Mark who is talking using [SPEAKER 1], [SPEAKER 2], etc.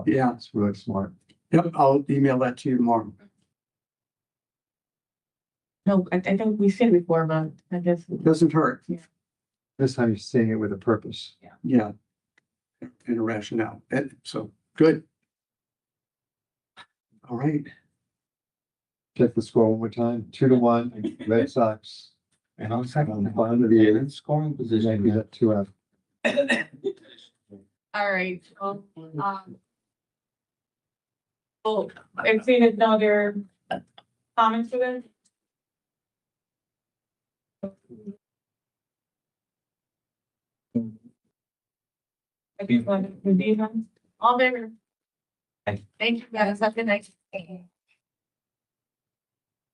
[SPEAKER 1] Yeah,
[SPEAKER 2] That's really smart.
[SPEAKER 1] yep, I'll email that to you tomorrow.
[SPEAKER 3] No, I, I think we've seen it before, but I guess.
[SPEAKER 1] Doesn't hurt,
[SPEAKER 2] This time you're seeing it with a purpose.
[SPEAKER 1] yeah. And a rationale, and so, good. All right,
[SPEAKER 2] Check the score one more time, two to one, Red Sox.
[SPEAKER 4] And I'll second.
[SPEAKER 2] Um, bottom of the eighth.
[SPEAKER 4] And Scoring position.
[SPEAKER 2] Maybe that two out.
[SPEAKER 3] All right, well, um. Well, if there's no other comments for this. I just wanted to be on, all in favor.
[SPEAKER 4] Aye.
[SPEAKER 3] Thank you guys, have a good night.